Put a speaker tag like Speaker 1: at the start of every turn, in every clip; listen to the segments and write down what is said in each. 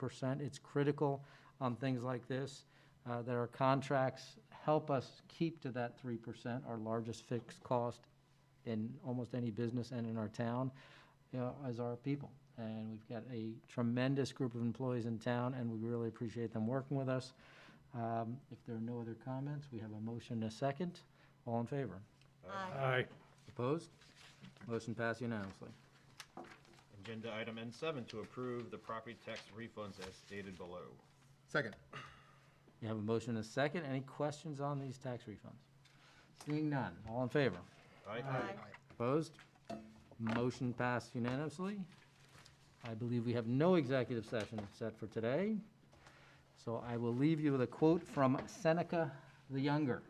Speaker 1: percent. It's critical on things like this, uh, that our contracts help us keep to that three percent, our largest fixed cost in almost any business and in our town, you know, as our people. And we've got a tremendous group of employees in town, and we really appreciate them working with us. Um, If there are no other comments, we have a motion and a second. All in favor?
Speaker 2: Aye.
Speaker 1: Opposed? Motion passed unanimously.
Speaker 3: Agenda item N seven, to approve the property tax refunds as stated below.
Speaker 4: Second.
Speaker 1: You have a motion and a second. Any questions on these tax refunds? Seeing none. All in favor?
Speaker 3: Aye?
Speaker 1: Opposed? Motion passed unanimously. I believe we have no executive session set for today, so I will leave you with a quote from Seneca the Younger.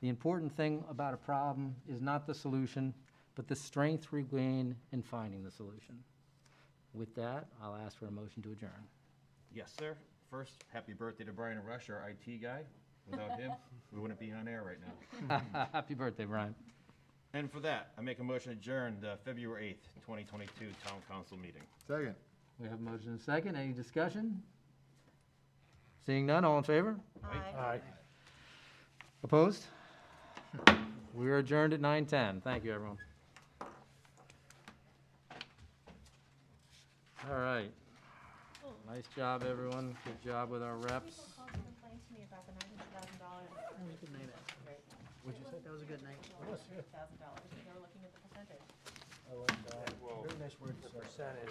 Speaker 1: "The important thing about a problem is not the solution, but the strength we gain in finding the solution." With that, I'll ask for a motion to adjourn.
Speaker 3: Yes, sir. First, happy birthday to Brian Rush, our IT guy. Without him, we wouldn't be on air right now.
Speaker 1: Happy birthday, Brian.
Speaker 3: And for that, I make a motion to adjourn the February eighth, twenty twenty-two town council meeting.
Speaker 4: Second.
Speaker 1: We have a motion and a second. Any discussion? Seeing none, all in favor?
Speaker 2: Aye.
Speaker 1: Opposed? We are adjourned at 9:10. Thank you, everyone. All right. Nice job, everyone. Good job with our reps.
Speaker 5: complained to me about the ninety thousand dollars. That was a good night. What'd you say? That was a good night. Thousand dollars, they were looking at the percentage.